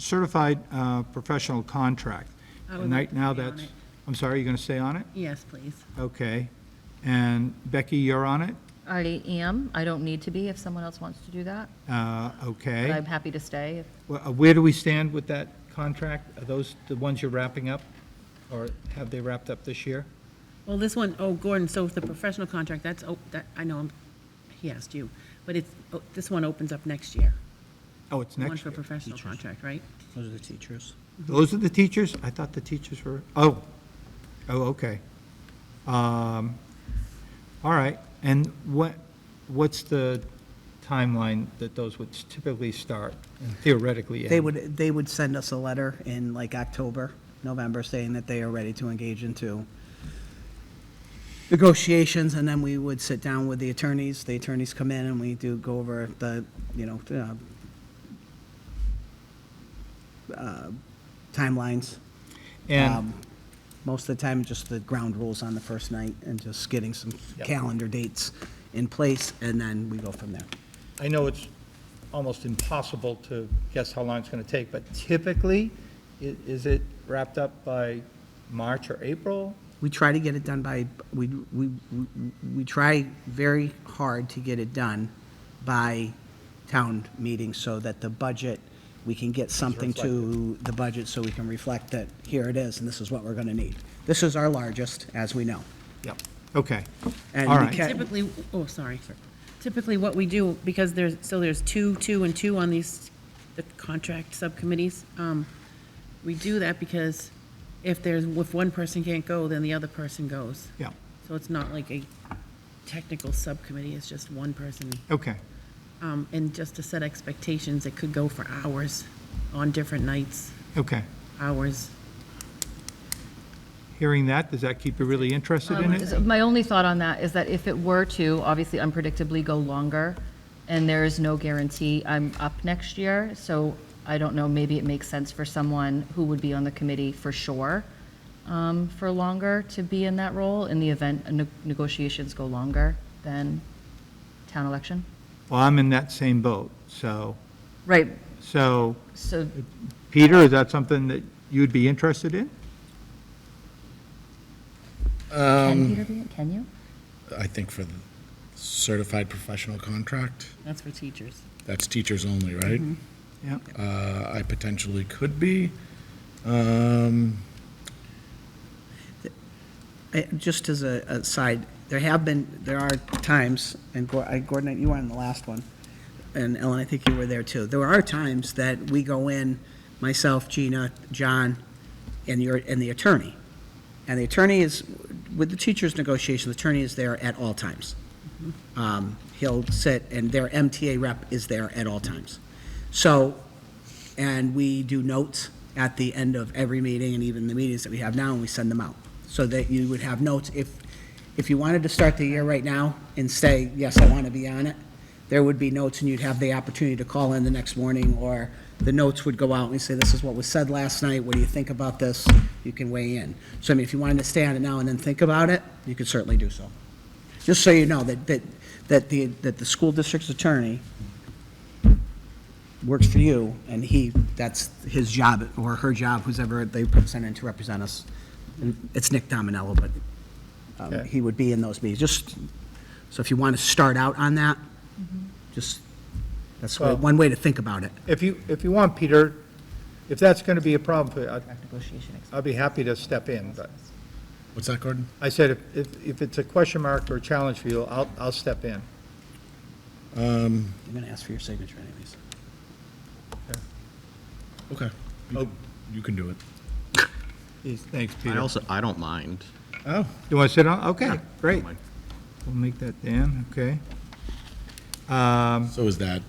certified uh, professional contract. I would And like right to now, stay on that's, it. I'm sorry, you're going to stay on it? Yes, please. Okay. And Becky, you're on it? I am. I don't need to be if someone else wants to do that. Uh, But Okay. I'm happy to stay. if- Well, uh, Where do we stand with that contract? Are those the ones you're wrapping up? Or have they wrapped up this year? Well, this one, oh, Gordon, so if the professional contract, that's, oh, that, I know, I'm- he asked you, but it's, oh, this one opens up next year. Oh, it's The One next for year. professional contract, right? Those are the teachers. Those are the teachers? I thought the teachers were, oh, oh, okay. Um, All right, and what, what's the timeline that those would typically start and theoretically? They end? would, they would send us a letter in like October, November, saying that they are ready to engage into negotiations, and then we would sit down with the attorneys. The attorneys come in and we do go over the, you know, uh, uh, timelines. And, Um, Most of the time, just the ground rules on the first night and just getting some Yep. calendar dates in place, and then we go from there. I know it's almost impossible to guess how long it's going to take, but typically, i- is it wrapped up by March or April? We try to get it done by, we, we, we- we try very hard to get it done by town meeting so that the budget, we can get something to the budget so we can reflect that here it is and this is what we're gonna need. This is our largest, as we know. Yep. Okay, And All we right. can- Typically, oh, sorry. Typically, what we do, because there's, so there's two, two, and two on these, the contract subcommittees, um, we do that because if there's, if one person can't go, then the other person goes. yeah, So it's not like a technical subcommittee, it's just one person. okay, Um, And just to set expectations, it could go for hours on different nights, okay. hours. Hearing that, does that keep you really interested Um, in it? So My only thought on that is that if it were to, obviously unpredictably go longer, and there is no guarantee I'm up next year, so I don't know, maybe it makes sense for someone who would be on the committee for sure um, for longer to be in that role in the event uh, ne- negotiations go longer than town election. Well, I'm in that same boat, so, Right, so, so Peter, is that something that you'd be interested in? can Peter be, it? can you? I think for the certified professional contract, That's for teachers. that's teachers only, right? Mm-hmm. Yeah, Uh, I potentially could be. Um, I- Just as a a side, there have been, there are times, and Gor- I- Gordon, you were on the last one, and Ellen, I think you were there too. There are times that we go in, myself, Gina, John, and your, and the attorney. And the attorney is, with the teacher's negotiation, the attorney is there at all times. Um, He'll sit, and their MTA rep is there at all times. So, and we do notes at the end of every meeting and even the meetings that we have now, and we send them out. So that you would have notes. If, if you wanted to start the year right now and say, yes, I want to be on it, there would be notes and you'd have the opportunity to call in the next morning or the notes would go out and we say, this is what was said last night. What do you think about this? You can weigh in. So I mean, if you wanted to stay on it now and then think about it, you could certainly do so. Just so you know that, that, that the, that the school district's attorney works for you, and he, that's his job, or her job, who's ever they send in to represent us. It's Nick Dominello, but um, Okay. he would be in those meetings, just, so if you want to start out on that, just, that's Well- one way to think about it. if you, if you want, Peter, if that's going to be a problem for you, I'd- Negotiation. I'd be happy to step in, but what's that, Gordon? I said, if- if, if it's a question mark or a challenge for you, I'll, I'll step in. I'm going to ask for your signature anyways. Okay. You Oh. can- You can do it. Geez, Thanks, I Peter. also, I don't mind. Oh. You want to sit on? Okay, great. mind. We'll make that Dan, okay. Um, So is that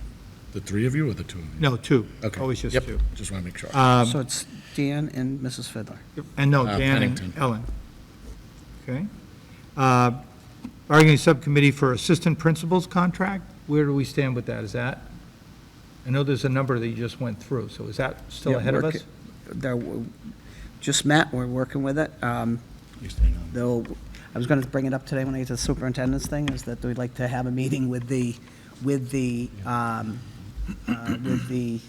the three of you or the two of you? No, two. Okay. Always just Yep. two. Uh, Just want to make sure. Um, So it's Dan and Mrs. Fiddler. And no, Uh, Dan and Pennington. Ellen. Okay. Uh, Bargaining Subcommittee for Assistant Principals Contract, where do we stand with that? Is that, I know there's a number that you just went through, so is that still Yeah, ahead of work- us? They're, just met, we're working with it. Um, You're staying on. though, I was going to bring it up today when I get to the superintendent's thing, is that we'd like to have a meeting with the, with the, um, uh, with the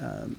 um,